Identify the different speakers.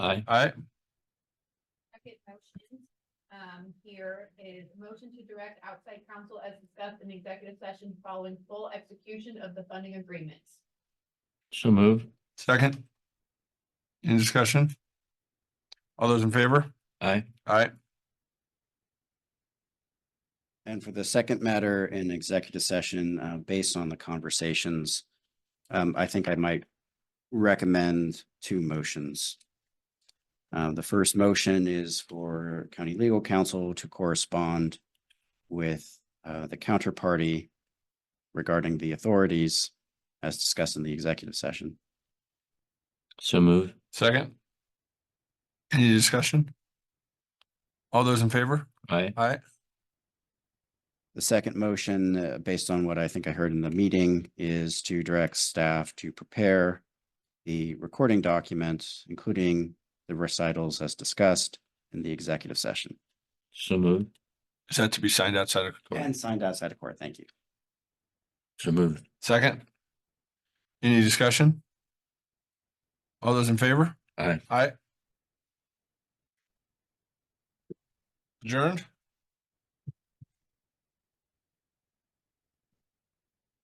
Speaker 1: Aye.
Speaker 2: Aye.
Speaker 3: Second motion, um, here is motion to direct outside counsel as discussed in executive session following full execution of the funding agreements.
Speaker 1: So move.
Speaker 2: Second. Any discussion? All those in favor?
Speaker 1: Aye.
Speaker 2: Aye.
Speaker 4: And for the second matter in executive session, uh, based on the conversations, um, I think I might recommend two motions. Uh, the first motion is for county legal counsel to correspond with, uh, the counterparty regarding the authorities as discussed in the executive session.
Speaker 1: So move.
Speaker 2: Second. Any discussion? All those in favor?
Speaker 1: Aye.
Speaker 2: Aye.
Speaker 4: The second motion, uh, based on what I think I heard in the meeting, is to direct staff to prepare the recording documents, including the recitals as discussed in the executive session
Speaker 1: So move.
Speaker 2: Is that to be signed outside of?
Speaker 4: and signed outside of court. Thank you.
Speaker 1: So move.
Speaker 2: Second. Any discussion? All those in favor?
Speaker 1: Aye.
Speaker 2: Aye. Adjourned?